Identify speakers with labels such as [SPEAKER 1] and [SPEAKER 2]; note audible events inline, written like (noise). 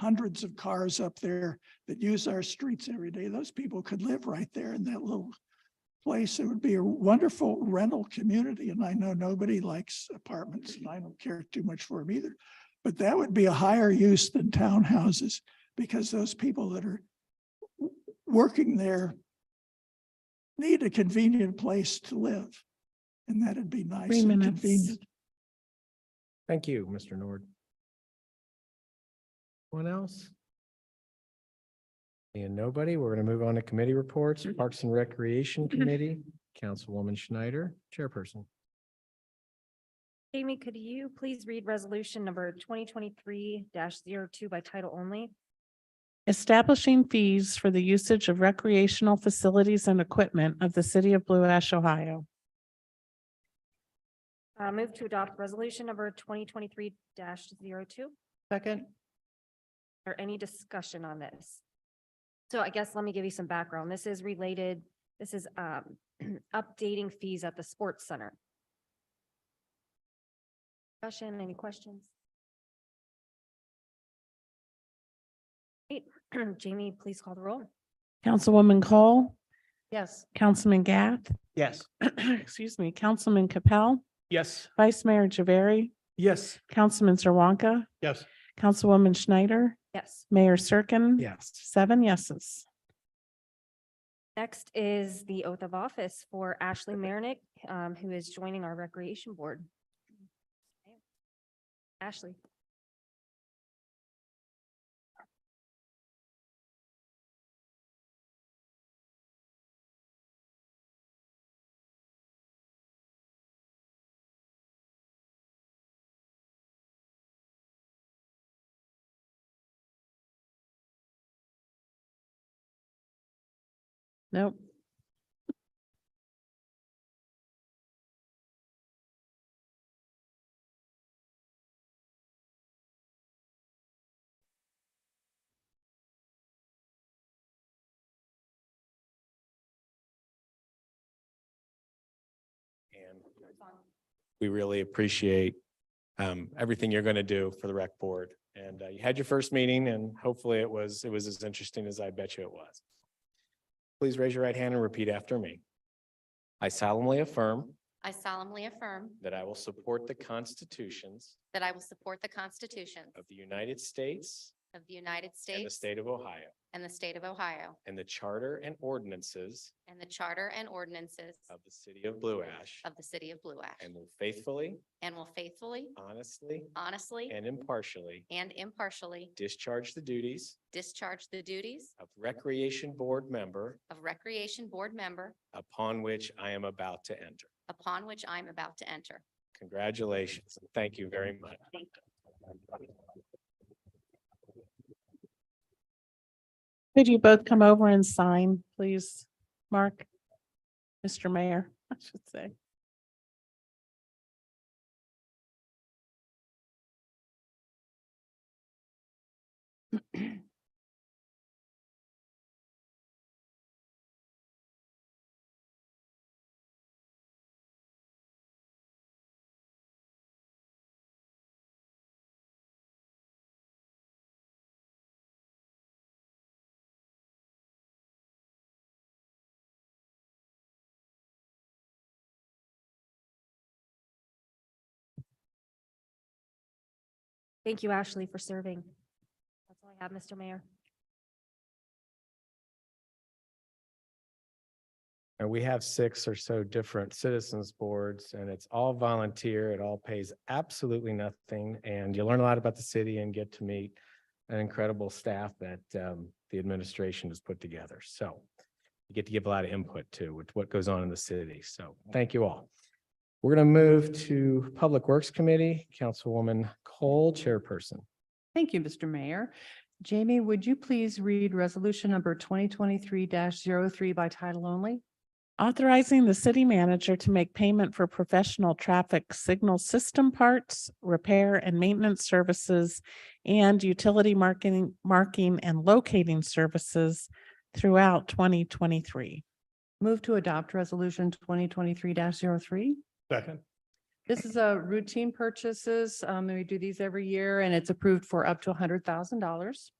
[SPEAKER 1] hundreds of cars up there that use our streets every day. Those people could live right there in that little place. It would be a wonderful rental community. And I know nobody likes apartments and I don't care too much for them either. But that would be a higher use than townhouses because those people that are w- working there need a convenient place to live. And that'd be nice
[SPEAKER 2] Three
[SPEAKER 1] and
[SPEAKER 2] minutes.
[SPEAKER 1] convenient.
[SPEAKER 3] Thank you, Mr. Nord. Anyone else? And nobody, we're going to move on to committee reports,
[SPEAKER 4] Mm.
[SPEAKER 3] Parks
[SPEAKER 4] (clears throat)
[SPEAKER 3] and Recreation Committee, Councilwoman Schneider, Chairperson.
[SPEAKER 5] Jamie, could you please read resolution number twenty twenty-three 2 by title only?
[SPEAKER 2] Establishing fees for the usage of recreational facilities and equipment of the city of Blue Ash, Ohio.
[SPEAKER 5] Uh, move to adopt resolution number twenty twenty-three 2
[SPEAKER 6] Second,
[SPEAKER 5] Or any discussion on this? So I guess let me give you some background. This is related, this is, um, (clears throat) updating fees at the sports center. Discussion, any questions? Great. (clears throat) Jamie, please call the roll.
[SPEAKER 2] Councilwoman Cole,
[SPEAKER 6] yes.
[SPEAKER 2] Councilman Gath, (clears throat)
[SPEAKER 4] Yes.
[SPEAKER 2] excuse me, Councilman Capell,
[SPEAKER 4] Yes.
[SPEAKER 2] Vice Mayor Javari,
[SPEAKER 4] Yes.
[SPEAKER 2] Councilman Zerwanka,
[SPEAKER 4] Yes.
[SPEAKER 2] Councilwoman Schneider,
[SPEAKER 5] Yes.
[SPEAKER 2] Mayor Cirkin.
[SPEAKER 3] Yes.
[SPEAKER 2] Seven yeses.
[SPEAKER 5] Next is the oath of office for Ashley Marinick, um, who is joining our Recreation Board. Ashley.
[SPEAKER 2] Nope.
[SPEAKER 3] And we really appreciate um, everything you're going to do for the rec board. And uh, you had your first meeting and hopefully it was, it was as interesting as I bet you it was. Please raise your right hand and repeat after me. I solemnly affirm
[SPEAKER 7] I solemnly affirm
[SPEAKER 3] that I will support the constitutions
[SPEAKER 7] that I will support the Constitution
[SPEAKER 3] of the United States
[SPEAKER 7] of the United
[SPEAKER 3] and the
[SPEAKER 7] States
[SPEAKER 3] state of Ohio
[SPEAKER 7] and the state of Ohio
[SPEAKER 3] and the charter and ordinances
[SPEAKER 7] and the charter and ordinances
[SPEAKER 3] of the city of Blue Ash
[SPEAKER 7] of the city of Blue Ash
[SPEAKER 3] and will faithfully,
[SPEAKER 7] and will faithfully,
[SPEAKER 3] honestly,
[SPEAKER 7] honestly,
[SPEAKER 3] and impartially
[SPEAKER 7] and impartially
[SPEAKER 3] discharge the duties
[SPEAKER 7] discharge the duties
[SPEAKER 3] of Recreation Board member
[SPEAKER 7] of Recreation Board member
[SPEAKER 3] upon which I am about to enter.
[SPEAKER 7] upon which I am about to enter.
[SPEAKER 3] Congratulations. and Thank you very much.
[SPEAKER 2] Could you both come over and sign, please? Mark? Mr. Mayor, (laughs) I should say.
[SPEAKER 5] Thank you, Ashley, for serving. That's all I have, Mr. Mayor.
[SPEAKER 3] And we have six or so different citizens boards and it's all volunteer. It all pays absolutely nothing. And you learn a lot about the city and get to meet an incredible staff that um, the administration has put together. So you get to give a lot of input to with what goes on in the city. So thank you all. We're going to move to Public Works Committee, Councilwoman Cole, Chairperson.
[SPEAKER 6] Thank you, Mr. Mayor. Jamie, would you please read resolution number twenty twenty-three 3 by title only?
[SPEAKER 2] Authorizing the city manager to make payment for professional traffic signal system parts, repair and maintenance services, and utility marketing, marking and locating services throughout twenty twenty-three.
[SPEAKER 6] Move to adopt resolution twenty twenty-three 3
[SPEAKER 4] Second.
[SPEAKER 6] This is a routine purchases. Um, we do these every year and it's approved for up to hundred thousand dollars.